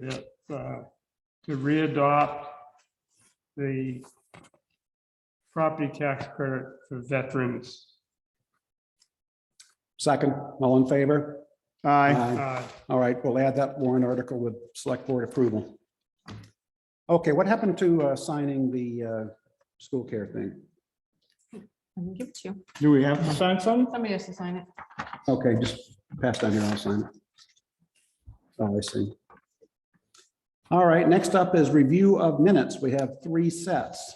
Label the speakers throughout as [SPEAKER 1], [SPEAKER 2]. [SPEAKER 1] that, uh, to readopt the property tax credit for veterans.
[SPEAKER 2] Second, all in favor?
[SPEAKER 3] Aye.
[SPEAKER 2] Aye.
[SPEAKER 1] Uh,
[SPEAKER 2] All right, we'll add that warrant article with select board approval. Okay, what happened to uh, signing the uh, school care thing?
[SPEAKER 4] I can give it to you.
[SPEAKER 3] Do we have to sign some?
[SPEAKER 4] Somebody has to sign it.
[SPEAKER 2] Okay, just pass down here, I'll sign it. Oh, I see. All right, next up is review of minutes. We have three sets.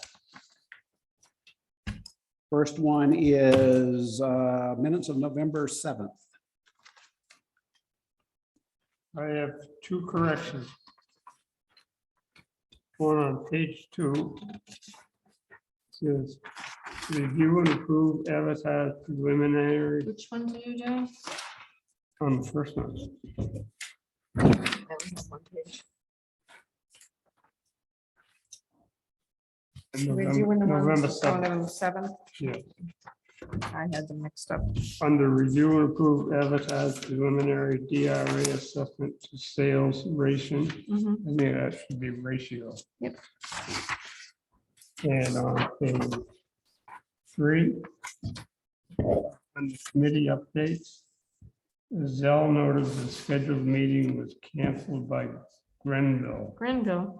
[SPEAKER 2] First one is uh, minutes of November 7th.
[SPEAKER 1] Uh, I have two corrections. One on page two. Says, review and approve advertised preliminary
[SPEAKER 4] Which one do you do?
[SPEAKER 1] on the first one.
[SPEAKER 4] That was on one page. We're doing
[SPEAKER 1] November
[SPEAKER 4] the
[SPEAKER 1] November
[SPEAKER 4] ones on
[SPEAKER 1] 7th,
[SPEAKER 4] November seventh.
[SPEAKER 1] yeah.
[SPEAKER 4] I had them mixed up.
[SPEAKER 1] Under review and approve advertised preliminary DRA assessment to sales ratio.
[SPEAKER 4] Mhm.
[SPEAKER 1] I mean, that should be ratio.
[SPEAKER 4] Yep.
[SPEAKER 1] And on page three, under committee updates, Zell noted the scheduled meeting was canceled by Grenville.
[SPEAKER 4] Granville,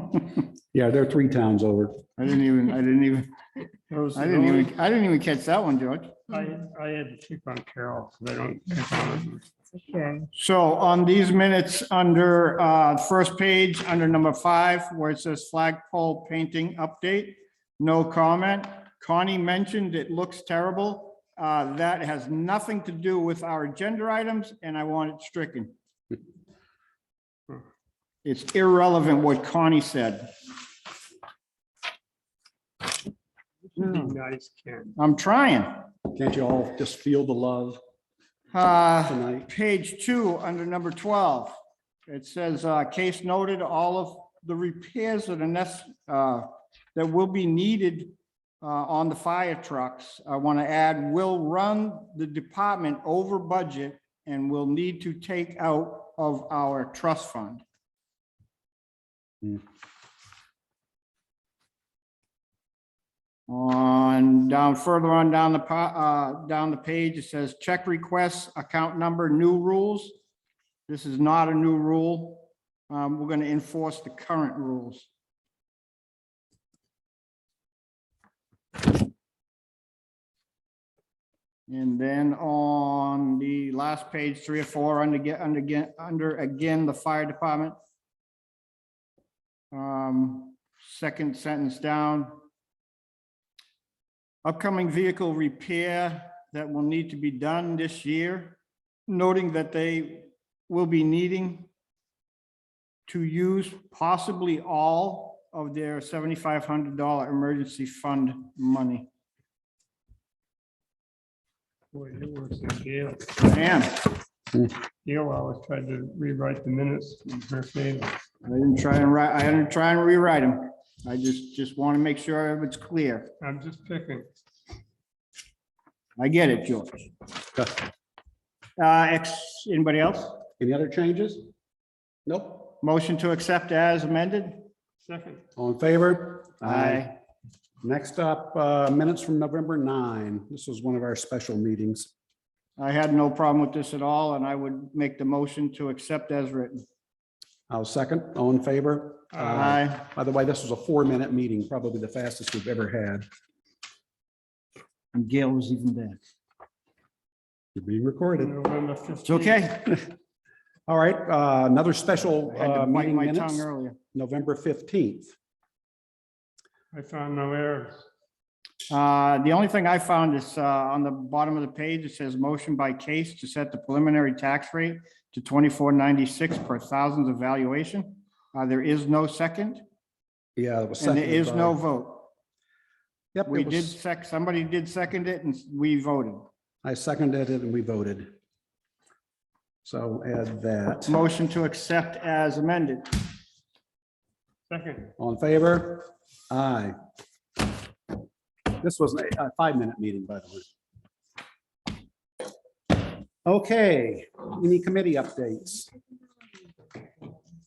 [SPEAKER 4] hmm.
[SPEAKER 2] Yeah, they're three towns over.
[SPEAKER 3] I didn't even, I didn't even,
[SPEAKER 1] That was
[SPEAKER 3] I
[SPEAKER 1] the
[SPEAKER 3] didn't
[SPEAKER 1] only-
[SPEAKER 3] even, I didn't even catch that one, George.
[SPEAKER 1] I, I had to pick on Carol, because I don't pick on her.
[SPEAKER 4] Okay.
[SPEAKER 3] So on these minutes, under uh, first page, under number five, where it says flagpole painting update, no comment. Connie mentioned it looks terrible. Uh, That has nothing to do with our agenda items, and I want it stricken. It's irrelevant what Connie said.
[SPEAKER 1] Be
[SPEAKER 3] Hmm.
[SPEAKER 1] nice, Ken.
[SPEAKER 3] I'm trying.
[SPEAKER 2] Can't you all just feel the love
[SPEAKER 3] Uh,
[SPEAKER 2] tonight?
[SPEAKER 3] page two, under number twelve, it says, uh, case noted, all of the repairs that are necess, uh, that will be needed, uh, on the fire trucks, I want to add, will run the department over budget and will need to take out of our trust fund.
[SPEAKER 2] Hmm.
[SPEAKER 3] On, down, further on down the, pa- uh, down the page, it says check requests, account number, new rules. This is not a new rule. Um, we're gonna enforce the current rules. And then on the last page, three or four, under, get, under, again, under, again, the fire department. Um, second sentence down. Upcoming vehicle repair that will need to be done this year, noting that they will be needing to use possibly all of their seventy-five hundred dollar emergency fund money.
[SPEAKER 1] Boy, it works in jail.
[SPEAKER 3] Damn,
[SPEAKER 1] Gail always tried to rewrite the minutes in her favor.
[SPEAKER 3] I didn't try and write, I didn't try and rewrite them. I just, just want to make sure it's clear.
[SPEAKER 1] I'm just picking.
[SPEAKER 3] I get it, George. Uh, ex, anybody else?
[SPEAKER 2] Any other changes? Nope.
[SPEAKER 3] Motion to accept as amended?
[SPEAKER 1] Second,
[SPEAKER 2] All in favor? Next up, uh, minutes from November 9. This was one of our special meetings.
[SPEAKER 3] I had no problem with this at all, and I would make the motion to accept as written.
[SPEAKER 2] I'll second. All in favor?
[SPEAKER 3] Aye.
[SPEAKER 2] By the way, this was a four-minute meeting, probably the fastest we've ever had.
[SPEAKER 3] And Gail was even there.
[SPEAKER 2] You're being recorded.
[SPEAKER 1] November 15th.
[SPEAKER 3] It's okay.
[SPEAKER 2] All right, uh, another special
[SPEAKER 3] I had
[SPEAKER 2] uh,
[SPEAKER 3] to bite
[SPEAKER 2] meeting
[SPEAKER 3] my tongue
[SPEAKER 2] minutes,
[SPEAKER 3] earlier.
[SPEAKER 2] November 15th.
[SPEAKER 1] I found no errors.
[SPEAKER 3] Uh, the only thing I found is, uh, on the bottom of the page, it says motion by case to set the preliminary tax rate to twenty-four ninety-six per thousands of valuation. Uh, there is no second,
[SPEAKER 2] Yeah. it was
[SPEAKER 3] and there
[SPEAKER 2] seconded
[SPEAKER 3] is
[SPEAKER 2] by-
[SPEAKER 3] no vote.
[SPEAKER 2] Yep,
[SPEAKER 3] We
[SPEAKER 2] it
[SPEAKER 3] did
[SPEAKER 2] was,
[SPEAKER 3] sec, somebody did second it and we voted.
[SPEAKER 2] I seconded it and we voted. So add that.
[SPEAKER 3] Motion to accept as amended.
[SPEAKER 1] Second,
[SPEAKER 2] All in favor? Aye. This was a a five-minute meeting, by the way. Okay, any committee updates?